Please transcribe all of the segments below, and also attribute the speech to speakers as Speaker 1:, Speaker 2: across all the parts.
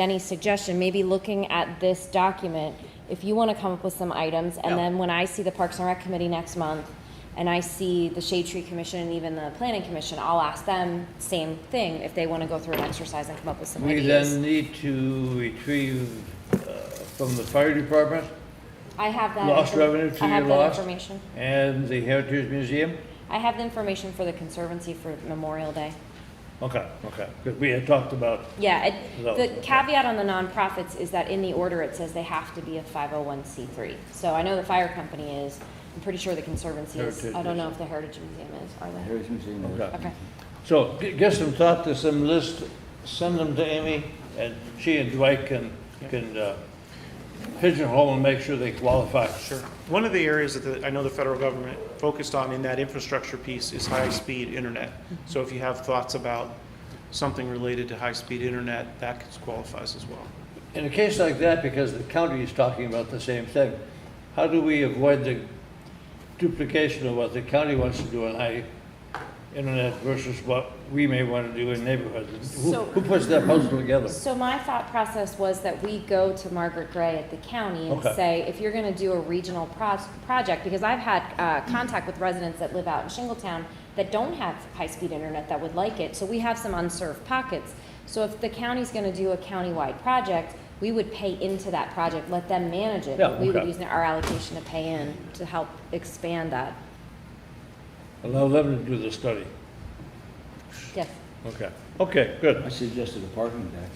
Speaker 1: Jenny's suggestion, maybe looking at this document, if you want to come up with some items, and
Speaker 2: Yeah.
Speaker 1: then when I see the Parks and Rec Committee next month, and I see the Shade Tree Commission and even the Planning Commission, I'll ask them same thing, if they want to go through an exercise and come up with some
Speaker 2: We
Speaker 1: ideas.
Speaker 2: then need to retrieve uh, from the fire department
Speaker 1: I have that.
Speaker 2: lost
Speaker 1: infor-
Speaker 2: revenue to
Speaker 1: I
Speaker 2: your
Speaker 1: have that
Speaker 2: lost.
Speaker 1: information.
Speaker 2: and the Heritage Museum.
Speaker 1: I have the information for the Conservancy for Memorial Day.
Speaker 2: Okay, okay, because we had talked about,
Speaker 1: Yeah, it,
Speaker 2: No,
Speaker 1: the
Speaker 2: okay.
Speaker 1: caveat on the nonprofits is that in the order, it says they have to be a five oh one C three. So I know the fire company is, I'm pretty sure the conservancy is,
Speaker 2: Heritage
Speaker 1: I don't know
Speaker 2: is.
Speaker 1: if the Heritage Museum is, are they?
Speaker 3: Heritage Museum. is-
Speaker 2: okay.
Speaker 1: Okay,
Speaker 2: So g- give some thought to some list, send them to Amy, and she and Dwight can, can uh, pigeonhole and make sure they qualify.
Speaker 4: Sure. One of the areas that the- I know the federal government focused on in that infrastructure piece is high-speed internet. So if you have thoughts about something related to high-speed internet, that qualifies as well.
Speaker 2: In a case like that, because the county is talking about the same thing, how do we avoid the duplication of what the county wants to do on high internet versus what we may want to do in neighborhoods? Who,
Speaker 1: So-
Speaker 2: who puts that puzzle together?
Speaker 1: so my thought process was that we go to Margaret Gray at the county and
Speaker 2: Okay.
Speaker 1: say, if you're gonna do a regional pros- project, because I've had, uh, contact with residents that live out in Shingletown that don't have high-speed internet that would like it, so we have some unserved pockets. So if the county's gonna do a countywide project, we would pay into that project, let them manage it.
Speaker 2: Yeah,
Speaker 1: but We would
Speaker 2: okay.
Speaker 1: use our allocation to pay in to help expand that.
Speaker 2: Allow them to do the study.
Speaker 1: Yes,
Speaker 2: Okay, okay, good.
Speaker 3: I suggested a parking deck.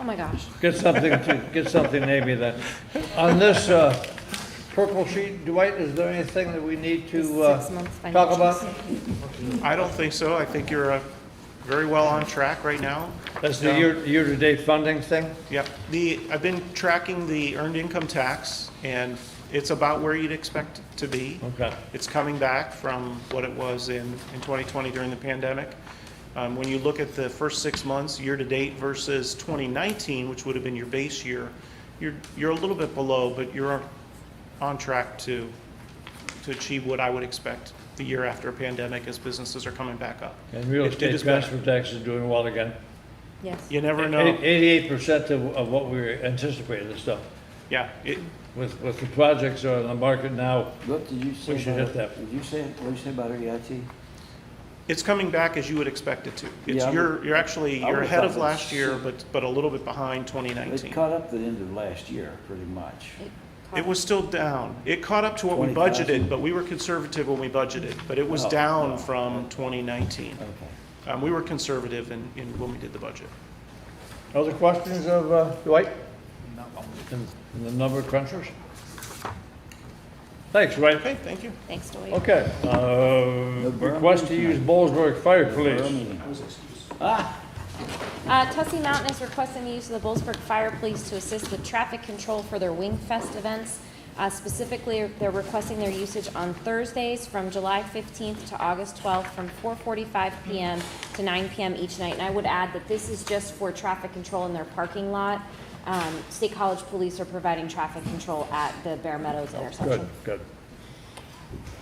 Speaker 1: oh my gosh.
Speaker 2: Get something to, get something to Amy then. On this, uh, purple sheet, Dwight, is there anything that we need to, uh,
Speaker 1: Six months
Speaker 2: talk about?
Speaker 1: financials.
Speaker 4: I don't think so. I think you're uh, very well on track right now.
Speaker 2: That's the year, year-to-date funding thing?
Speaker 4: Yep. The, I've been tracking the earned income tax, and it's about where you'd expect it to be.
Speaker 2: Okay.
Speaker 4: It's coming back from what it was in, in 2020 during the pandemic. Um, When you look at the first six months, year-to-date versus 2019, which would have been your base year, you're, you're a little bit below, but you're on track to, to achieve what I would expect the year after a pandemic as businesses are coming back up.
Speaker 2: And real
Speaker 4: It- it
Speaker 2: estate
Speaker 4: is better.
Speaker 2: transfer tax is doing well again.
Speaker 1: Yes.
Speaker 4: You never know.
Speaker 2: Eighty-eight percent of, of what we anticipated and stuff.
Speaker 4: Yeah, it,
Speaker 2: With, with the projects that are on the market now,
Speaker 3: What did you say
Speaker 2: We should
Speaker 3: about-
Speaker 2: hit that.
Speaker 3: Did you say, what did you say about E EIT?
Speaker 4: It's coming back as you would expect it to. It's,
Speaker 3: Yeah, I would-
Speaker 4: you're, you're actually,
Speaker 3: I
Speaker 4: you're
Speaker 3: would've
Speaker 4: ahead of
Speaker 3: thought
Speaker 4: last
Speaker 3: that-
Speaker 4: year, but, but a little bit behind
Speaker 3: It
Speaker 4: 2019.
Speaker 3: caught up at the end of last year, pretty much.
Speaker 4: It was still down. It caught up to what we
Speaker 3: 20,000.
Speaker 4: budgeted, but we were conservative when we budgeted, but it was
Speaker 3: Oh,
Speaker 4: down
Speaker 3: oh,
Speaker 4: from 2019.
Speaker 3: Okay.
Speaker 4: Um, we were conservative in, in when we did the budget.
Speaker 2: other questions of uh, Dwight? And and the number crunchers? Thanks, Dwight.
Speaker 4: Okay, thank you.
Speaker 1: Thanks, Dwight.
Speaker 2: Okay, uh, request to use Bollesburg Fire Police.
Speaker 1: Uh, Tussie Mountain is requesting the use of the Bollesburg Fire Police to assist with traffic control for their Wing Fest events. Uh, specifically, they're requesting their usage on Thursdays from July 15th to August 12th, from 4:45 PM to 9 PM each night. And I would add that this is just for traffic control in their parking lot. Um, State College Police are providing traffic control at the Bear Meadows intersection.
Speaker 2: Good, good.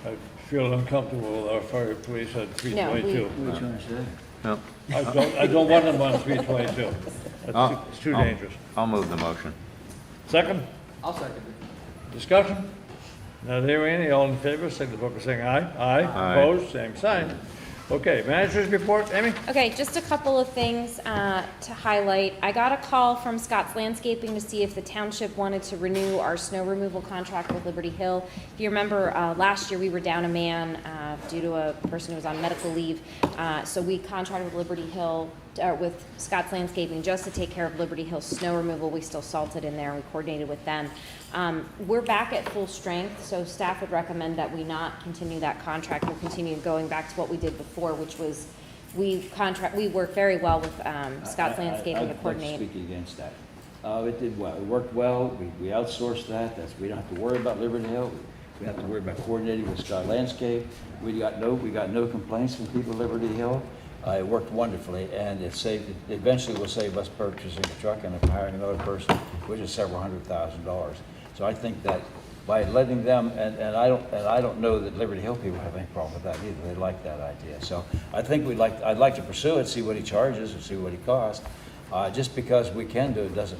Speaker 2: I feel uncomfortable with our fire police on three
Speaker 1: No, we-
Speaker 2: twenty-two.
Speaker 3: Which one is that?
Speaker 5: No,
Speaker 2: I don't, I don't want them on three twenty-two. It's too
Speaker 5: Oh.
Speaker 2: dangerous.
Speaker 5: I'll move the motion.
Speaker 2: 2nd Discussion? Not hearing any, all in favor, signify by saying aye. Aye.
Speaker 5: Aye.
Speaker 2: Opposed, same sign. Okay, managers report, Amy?
Speaker 1: Okay, just a couple of things uh, to highlight. I got a call from Scott's Landscaping to see if the township wanted to renew our snow removal contract with Liberty Hill. If you remember, uh, last year, we were down a man uh, due to a person who was on medical leave. Uh, So we contracted with Liberty Hill, uh, with Scott's Landscaping, just to take care of Liberty Hill's snow removal. We still salted in there, and we coordinated with them. Um, We're back at full strength, so staff would recommend that we not continue that contract. We'll continue going back to what we did before, which was we contract, we work very well with um, Scott's
Speaker 3: I- I- I-
Speaker 1: Landscaping to
Speaker 3: I'd like
Speaker 1: coordinate.
Speaker 3: to speak against that. Uh, it did well, it worked well, we, we outsourced that, that's, we don't have to worry about Liberty Hill, we don't have to worry about coordinating with Scott Landscape, we got no, we got no complaints from people at Liberty Hill. Uh, it worked wonderfully, and it saved, it eventually will save us purchasing a truck and hiring another person, which is several hundred thousand dollars. So I think that by letting them, and, and I don't, and I don't know that Liberty Hill people have any problem with that either, they like that idea. So I think we'd like, I'd like to pursue it, see what he charges and see what he costs, Uh, Just because we can do it doesn't